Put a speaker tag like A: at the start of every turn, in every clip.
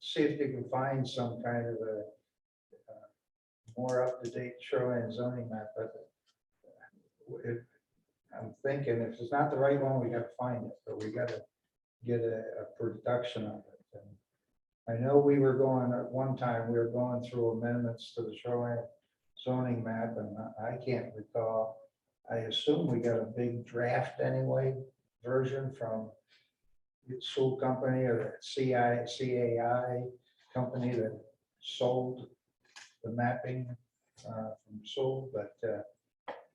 A: see if you can find some kind of a uh, more up-to-date shoreline zoning map, but if, I'm thinking if it's not the right one, we gotta find it, but we gotta get a, a production of it. And I know we were going, at one time, we were going through amendments to the shoreline zoning map, and I I can't recall. I assume we got a big draft anyway, version from the Sewell Company or CI, CAI company that sold the mapping uh, from Sewell, but uh,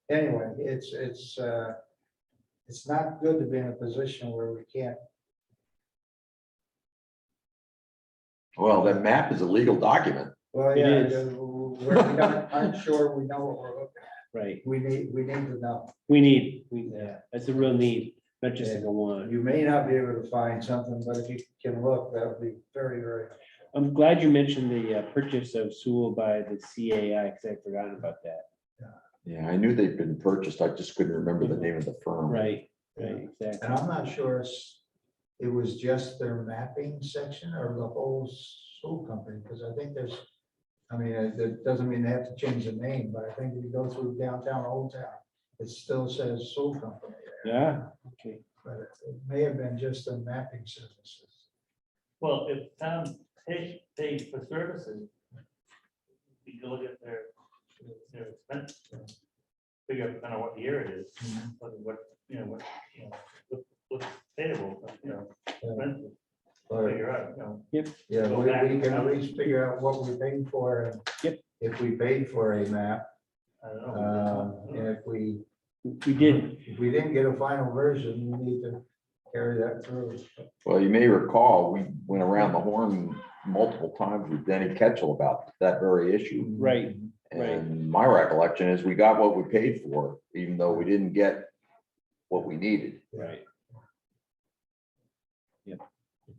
A: anyway, it's, it's, uh, it's not good to be in a position where we can't,
B: Well, that map is a legal document.
A: well,
C: It
A: yeah, uh,
C: is.
A: we're not, I'm sure we know what we're, looking-
C: Right,
A: we need, we need to know.
C: we need, we, uh, that's a real need, not just like a want.
A: You may not be able to find something, but if you can look, that would be very, very,
C: I'm glad you mentioned the uh, purchase of Sewell by the CAI, because I'd forgotten about that.
B: Yeah, I knew they'd been purchased. I just couldn't remember the name of the firm.
C: Right, right,
A: and
C: exactly.
A: I'm not sure it's- it was just their mapping section or the whole school company, because I think there's, I mean, it it doesn't mean they have to change the name, but I think if you go through downtown Old Town, it still says Soul Company there,
C: Yeah, okay.
A: but it may have been just the mapping services.
D: Well, if Tom paid, paid for services, we go get their, their expense. you know, Figure out kind of what year it is, what, what, you know, what, you know, what- what's payable, you know, expenses,
A: But,
D: figure out, you know.
A: yeah,
D: Go
A: we
D: back.
A: we can at least figure out what we paid for. and
C: Yep.
A: If we paid for a map,
D: I don't
A: Uh,
D: know.
A: And if we,
C: We did,
A: if we didn't get a final version, we need to carry that through.
B: Well, you may recall, we went around the horn multiple times with Denny Ketchel about that very issue.
C: Right. Right.
B: And my recollection is we got what we paid for, even though we didn't get what we needed.
C: right,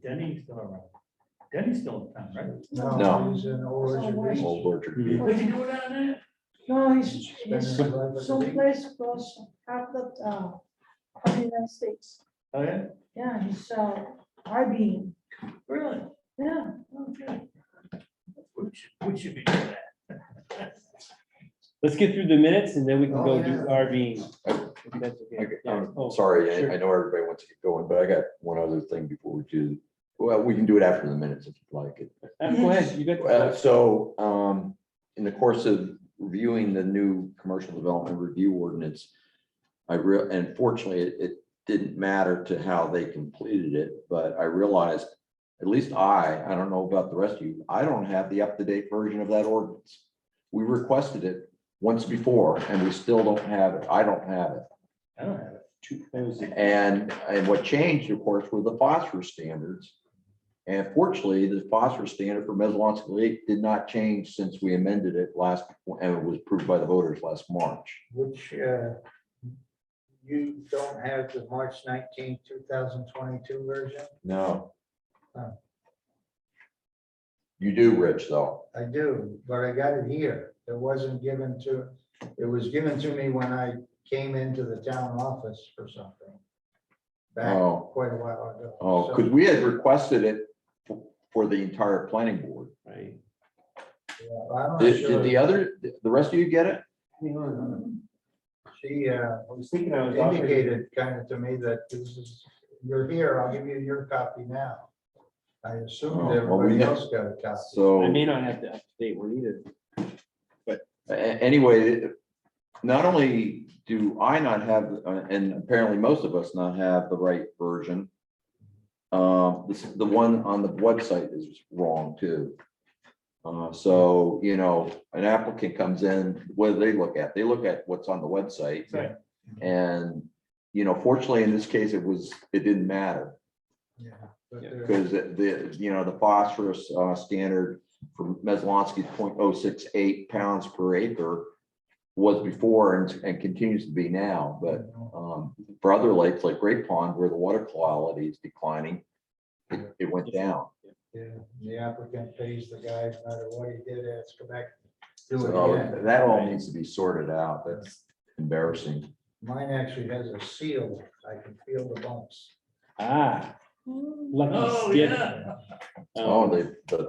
D: Denny's still around. Denny's still in town, right?
B: No.
A: No, he's in Old Orchard Beach.
B: Old Orchard
C: Hmm.
B: Beach.
D: What's he doing down there?
E: No, he's,
A: Spending his
E: he's
A: life at the beach.
E: someplace across half the town, of the United States.
D: Oh, yeah?
E: Yeah, he's, uh, I being,
D: Really?
E: yeah.
D: Okay. We should, we should be doing that.
C: let's get through the minutes and then we can
A: Oh,
C: go do
A: yeah.
C: RVing. if that's
B: I
C: okay.
B: g-
C: Yeah.
B: I'm
C: Oh,
B: Sorry,
C: sure.
B: I- I know everybody wants to get going, but I got one other thing before we do. Well, we can do it after the minutes if you'd like it.
C: Uh, Go ahead, you
B: Uh,
C: got,
B: So um, in the course of reviewing the new commercial development review ordinance, I real, and fortunately, it, it didn't matter to how they completed it, but I realized, at least I, I don't know about the rest of you, I don't have the up-to-date version of that ordinance. We requested it once before and we still don't have it. I don't have it.
D: I don't have it.
C: two- that was it.
B: And, and what changed, of course, were the phosphorus standards. And fortunately, the phosphorus standard for Mesalonska Lake did not change since we amended it last, and it was approved by the voters last March.
A: Which, uh, you don't have the March nineteenth, two thousand twenty-two version?
B: No.
A: Huh.
B: You do, Rich, though.
A: I do, but I got it here. It wasn't given to, it was given to me when I came into the town office for something. Back
B: Oh.
A: quite a while ago.
B: Oh,
A: So-
B: because we had requested it f- for the entire planning board.
C: Right.
A: Yeah, I'm not
B: Did, did
A: sure.
B: the other, the rest of you get it?
A: She, uh,
C: I was thinking I was offered-
A: indicated kind of to me that this is, you're here, I'll give you your copy now. I assumed
B: Oh, well, we
A: everybody
B: have-
A: else got a copy.
B: So.
C: I may not have the up-to-date one either.
B: A- Anyway, not only do I not have, uh, and apparently most of us not have the right version. Um, this, the one on the website is wrong too. Uh, so, you know, an applicant comes in, what do they look at? They look at what's on the website.
D: Right.
B: And, you know, fortunately, in this case, it was, it didn't matter.
A: Yeah, but
C: Yeah.
A: there-
B: Because the, you know, the phosphorus uh, standard for Meslonsky's 0.068 pounds per acre was before and, and continues to be now, but um, for other lakes like Great Pond, where the water quality is declining, it it went down.
A: yeah, The applicant pays the guy, no matter what he did, has to go back. Do it
B: So
A: again.
B: that all needs to be sorted out. That's embarrassing.
A: Mine actually has a seal, I can feel the bumps.
C: Ah,
F: Hmm.
E: lucky
G: Oh,
E: skip.
G: yeah.
E: um,
D: Oh,
C: Oh, they, the